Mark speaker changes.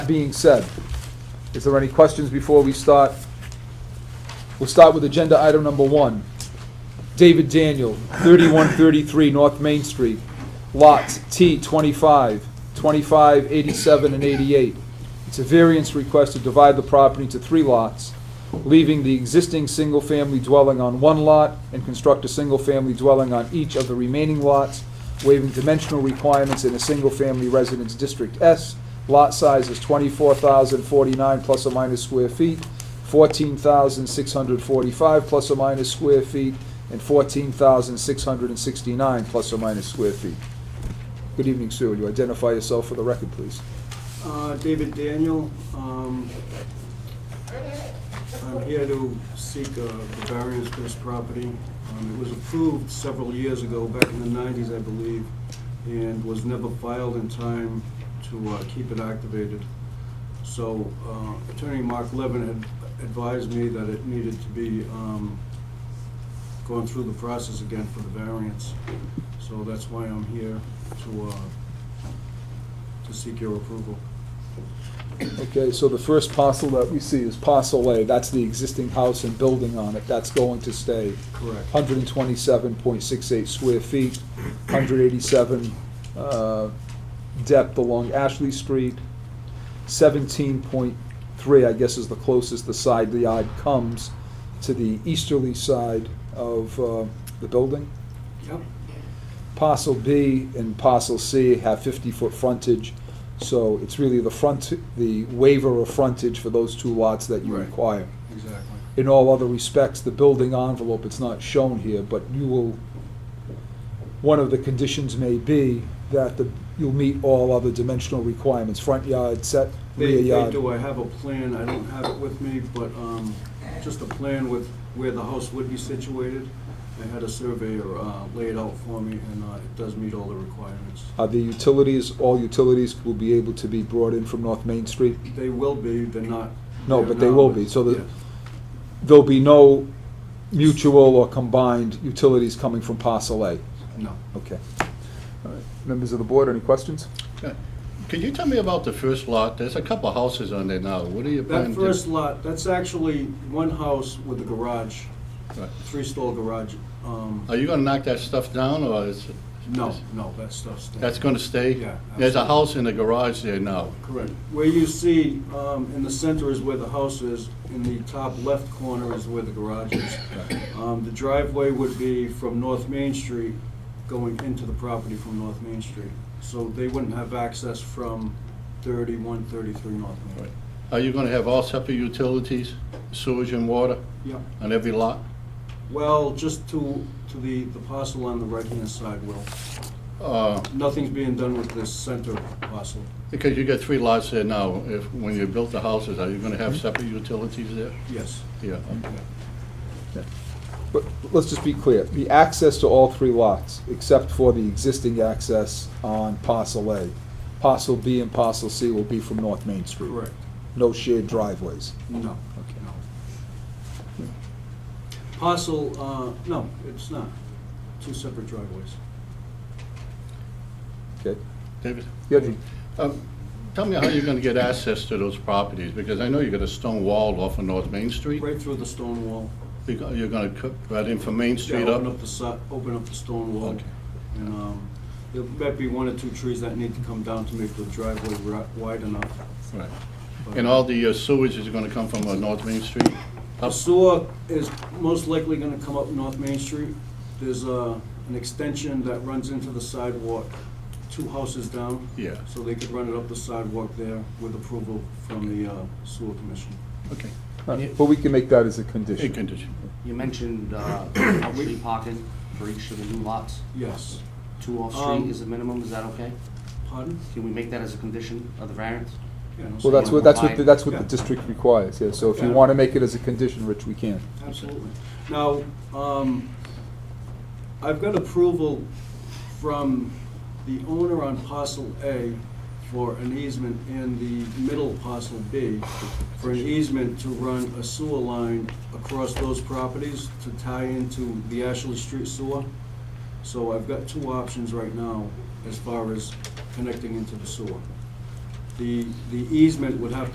Speaker 1: being said, is there any questions before we start? We'll start with agenda item number one. David Daniel, 3133 North Main Street, lots T25, 25, 87, and 88. It's a variance request to divide the property into three lots, leaving the existing single-family dwelling on one lot and construct a single-family dwelling on each of the remaining lots, waiving dimensional requirements in a single-family residence District S. Lot size is 24,049 plus or minus square feet, 14,645 plus or minus square feet, and 14,669 plus or minus square feet. Good evening, sir. Will you identify yourself for the record, please?
Speaker 2: Uh, David Daniel. um, I'm here to seek a variance for this property. Um, It was approved several years ago, back in the 90s, I believe, and was never filed in time to uh, keep it activated. So uh, Attorney Mark Levin had advised me that it needed to be um, going through the process again for the variance. So that's why I'm here to, uh, to seek your approval.
Speaker 1: Okay, so the first parcel that we see is parcel A. That's the existing house and building on it. That's going to stay
Speaker 2: Correct.
Speaker 1: 127.68 square feet, 187 uh, depth along Ashley Street, 17.3, I guess, is the closest the side the yard comes to the easterly side of uh, the building.
Speaker 2: Yep.
Speaker 1: Parcel B and parcel C have 50-foot frontage, so it's really the front, the waiver of frontage for those two lots that you
Speaker 2: Right.
Speaker 1: require.
Speaker 2: Exactly.
Speaker 1: In all other respects, the building envelope, it's not shown here, but you will, one of the conditions may be that the, you'll meet all other dimensional requirements, front yard, set, rear
Speaker 2: They, they
Speaker 1: yard.
Speaker 2: do, I have a plan, I don't have it with me, but, um, just a plan with where the house would be situated. I had a surveyor, uh, lay it out for me, and, uh, it does meet all the requirements.
Speaker 1: Uh, the utilities, all utilities will be able to be brought in from North Main Street.
Speaker 2: They will be, they're not.
Speaker 1: No,
Speaker 2: there
Speaker 1: but they
Speaker 2: now,
Speaker 1: will be, so the-
Speaker 2: Yes.
Speaker 1: There'll be no mutual or combined utilities coming from parcel A.
Speaker 2: No.
Speaker 1: Okay. All right. Members of the board, any questions?
Speaker 3: Can you tell me about the first lot? There's a couple houses on there now. What are you
Speaker 2: That
Speaker 3: planning? to-
Speaker 2: first lot, that's actually one house with a garage,
Speaker 3: Right.
Speaker 2: three-stall garage. Um,
Speaker 3: Are you gonna knock that stuff down, or is?
Speaker 2: no, no, that stuff's. there.
Speaker 3: That's gonna stay?
Speaker 2: Yeah,
Speaker 3: There's a
Speaker 2: absolutely.
Speaker 3: house in the garage there now.
Speaker 2: Correct. Where you see, um, in the center is where the house is, in the top left corner is where the garage is. Um, the driveway would be from North Main Street going into the property from North Main Street. So they wouldn't have access from thirty-one, thirty-three North Main.
Speaker 3: Right. Are you gonna have all separate utilities, sewage and water,
Speaker 2: Yeah,
Speaker 3: on every lot?
Speaker 2: well, just to, to the, the parcel on the right-hand side, Will.
Speaker 3: Uh,
Speaker 2: Nothing's being done with this center parcel.
Speaker 3: Because you got three lots there now. If, when you built the houses, are you gonna have
Speaker 2: Mm-hmm.
Speaker 3: separate utilities there?
Speaker 2: Yes.
Speaker 3: Yeah.
Speaker 2: Yeah.
Speaker 1: But let's just be clear, the access to all three lots, except for the existing access on parcel A, parcel B and parcel C will be from North Main Street.
Speaker 2: Correct.
Speaker 1: No shared driveways.
Speaker 2: No,
Speaker 1: Okay.
Speaker 2: no. Parcel, uh, no, it's not. Two separate driveways.
Speaker 1: Okay?
Speaker 3: David?
Speaker 1: Yeah, the-
Speaker 3: Um, Tell me how you're gonna get access to those properties, because I know you got a stone wall off of North Main Street.
Speaker 2: Right through the stone wall.
Speaker 3: You're go- you're gonna cut right in from Main
Speaker 2: Yeah,
Speaker 3: Street
Speaker 2: Open
Speaker 3: up?
Speaker 2: up the si, open up the stone wall.
Speaker 3: Okay.
Speaker 2: And, um, there might be one or two trees that need to come down to make the driveway ri- wide enough.
Speaker 3: Right.
Speaker 2: but-
Speaker 3: And all the uh, sewage is gonna come from uh, North Main Street?
Speaker 2: The
Speaker 3: Up?
Speaker 2: sewer is most likely gonna come up North Main Street. There's uh, an extension that runs into the sidewalk, two houses down.
Speaker 3: Yeah.
Speaker 2: So they could run it up the sidewalk there with approval from the uh, sewer commission.
Speaker 3: Okay.
Speaker 1: But we can make that as a
Speaker 3: Good
Speaker 1: condition.
Speaker 3: condition.
Speaker 4: You mentioned uh, off-street parking for each of the new lots.
Speaker 2: Yes.
Speaker 4: Two
Speaker 2: Um,
Speaker 4: off-street is the minimum, is that okay?
Speaker 2: Pardon?
Speaker 4: Can we make that as a condition of the variance?
Speaker 2: Yeah, no,
Speaker 1: Well, that's what, that's what, the- that's what the
Speaker 2: Yeah.
Speaker 1: district requires, yeah, so if you
Speaker 2: Yeah.
Speaker 1: want to make it as a condition, Rich, we can.
Speaker 2: Absolutely. Now, um, I've got approval from the owner on parcel A for an easement and the middle parcel B for an easement to run a sewer line across those properties to tie into the Ashley Street sewer. So I've got two options right now as far as connecting into the sewer. The the easement would have to